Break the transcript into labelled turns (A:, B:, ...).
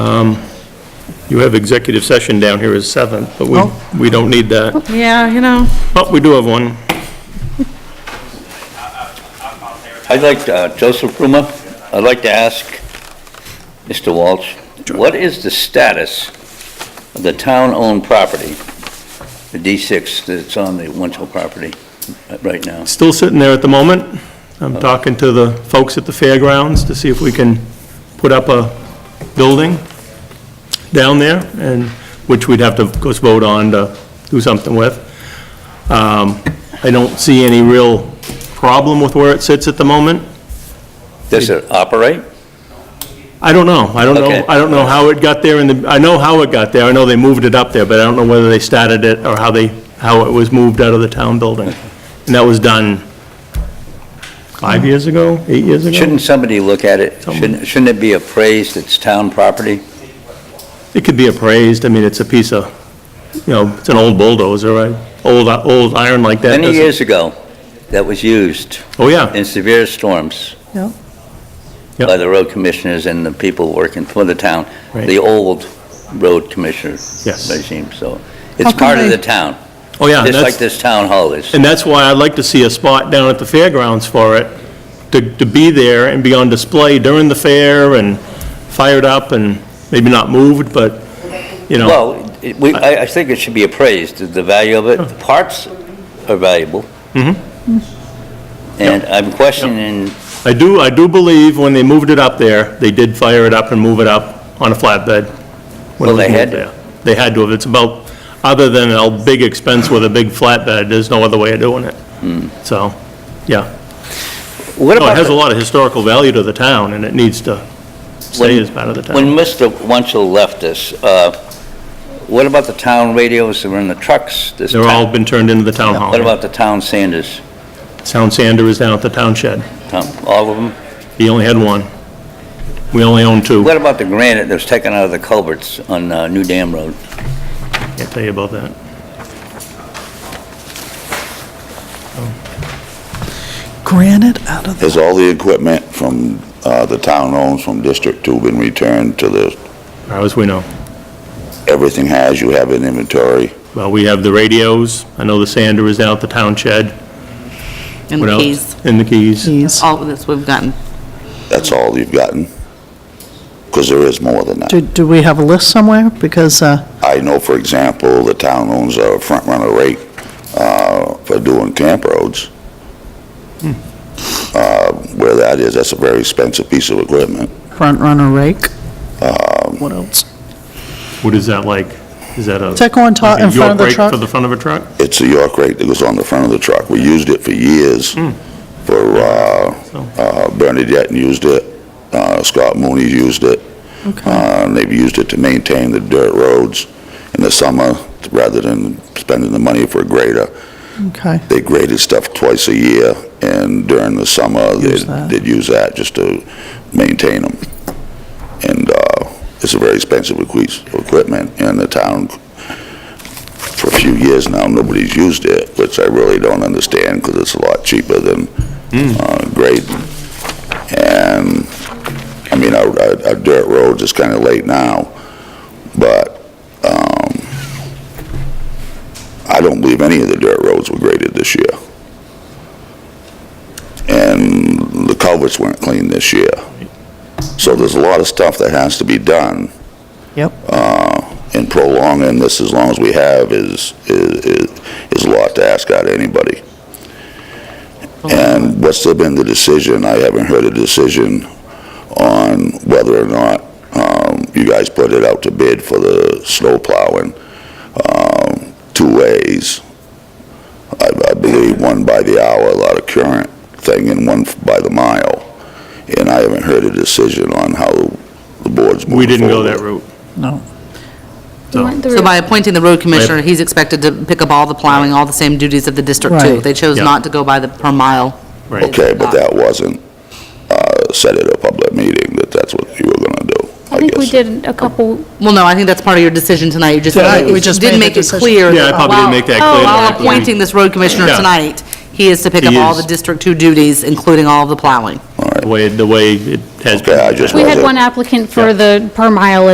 A: You have executive session down here as seventh, but
B: Oh.
A: we, we don't need that.
B: Yeah, you know,
A: But we do have one.
C: I'd like, to- uh, Joseph Ruma, I'd like to ask Mr. Walsh, what is the status of the town-owned property, the D6 that's on the Winchell property uh, right now?
A: Still sitting there at the moment. I'm talking to the folks at the fairgrounds to see if we can put up a building down there, and, which we'd have to, of course, vote on to do something with. Um, I don't see any real problem with where it sits at the moment.
C: Does it operate?
A: I don't know. I don't
C: Okay.
A: know, I don't know how it got there in the, I know how it got there. I know they moved it up there, but I don't know whether they started it or how they, how it was moved out of the town building. And that was done five years ago, eight years ago?
C: Shouldn't somebody look at it? Shouldn't shouldn't it be appraised, it's town property?
A: It could be appraised. I mean, it's a piece of, you know, it's an old bulldozer, right? Old, old iron like that.
C: Many
A: doesn't-
C: years ago, that was used
A: Oh, yeah.
C: in severe storms
B: no,
A: Yep.
C: by the road commissioners and the people working for the town,
A: Right.
C: the old road commissioner
A: Yes.
C: regime, so
B: How
C: it's
B: come
C: part of
B: they-
C: the town.
A: Oh, yeah.
C: Just
A: that's-
C: like this town hall is.
A: And that's why I'd like to see a spot down at the fairgrounds for it, to, to be there and be on display during the fair and fired up and maybe not moved, but, you know,
C: Well, it- we, I, I think it should be appraised, the value of it. The parts are valuable.
A: Mm-hmm.
C: And I'm questioning,
A: I do, I do believe when they moved it up there, they did fire it up and move it up on a flatbed. when it
C: Well,
A: was moved
C: they had to.
A: there. They had to have, it's about, other than a big expense with a big flatbed, there's no other way of doing it. So, yeah.
C: what
A: No, it
C: Hmm. about,
A: has a
C: the-
A: lot of historical value to the town, and it needs to stay
C: When-
A: as part of the town.
C: when Mr. Wunschel left us, uh, what about the town radios that were in the trucks this
A: They're all
C: time?
A: been turned into the town hall.
C: What about the town Sanders?
A: Sound sander is down at the town shed.
C: Tom, all of them?
A: He only had one. We only own two.
C: What about the granite that was taken out of the culverts on uh, New Dam Road?
A: Can't tell you about that.
B: granite out of the,
D: Has all the equipment from, uh, the town owns from District Two been returned to the,
A: As far as we know.
D: everything has, you have an inventory?
A: Well, we have the radios. I know the sander is down at the town shed.
E: And
A: What
E: the
A: else?
E: keys.
A: And the keys.
B: keys.
E: All of this we've gotten.
D: That's all you've gotten? Because there is more than
B: Do,
D: that.
B: do we have a list somewhere? Because, uh,
D: I know, for example, the town owns a front runner rate, uh, for doing camp roads. Uh, where that is, that's a very expensive piece of equipment.
B: front runner rake? What else?
A: What is that like? Is that a?
B: Does that go on top,
A: like a
B: in front of the
A: York rake
B: truck?
A: For the front of a truck?
D: It's a York rate that goes on the front of the truck. We used it for years for, uh,
A: So,
D: Uh, Bernadette used it, uh, Scott Mooney used it. Uh, and They've used it to maintain the dirt roads in the summer, rather than spending the money for a grader.
B: Okay,
D: They graded stuff twice a year, and during the summer,
B: Use
D: they'd
B: that.
D: they'd use that just to maintain them. And uh, it's a very expensive equi- equipment, and the town, for a few years now, nobody's used it, which I really don't understand, because it's a lot cheaper than uh, grading. And, I mean, our our- our dirt roads is kind of late now, but um, I don't believe any of the dirt roads were graded this year. And the culverts weren't cleaned this year. So there's a lot of stuff that has to be done,
B: yep.
D: and prolonging this as long as we have is, is, is a lot to ask out of anybody. And what's there been the decision, I haven't heard a decision on whether or not, um, you guys put it out to bid for the snow plowing, um, two ways. I, I believe one by the hour, a lot of current thing, and one by the mile. And I haven't heard a decision on how the board's moving
A: We didn't go
D: forward.
A: that route.
B: No.
A: So,
E: So by appointing the road commissioner, he's expected to pick up all the plowing, all the same duties of the District Two.
B: Right.
E: They chose
A: Yeah.
E: not to go by the per mile.
A: right.
D: Okay, but that wasn't uh, said at a public meeting, that that's what you were going to do, I
F: I think we
D: guess.
F: did a couple,
E: Well, no, I think that's part of your decision tonight. You just
B: Right, we just
E: didn't
B: made
E: make
B: the
E: it
B: decision.
E: clear.
A: Yeah, I
E: that
A: probably didn't
E: while-
A: make that clear.
E: While
A: that we-
E: appointing this road commissioner
A: Yeah.
E: tonight, he is to pick up
A: He
E: all
A: is.
E: the District Two duties, including all of the plowing.
A: The way, the way it has been.
D: Okay, I just
F: we
D: Well,
F: had
D: the-
F: one applicant for the per mile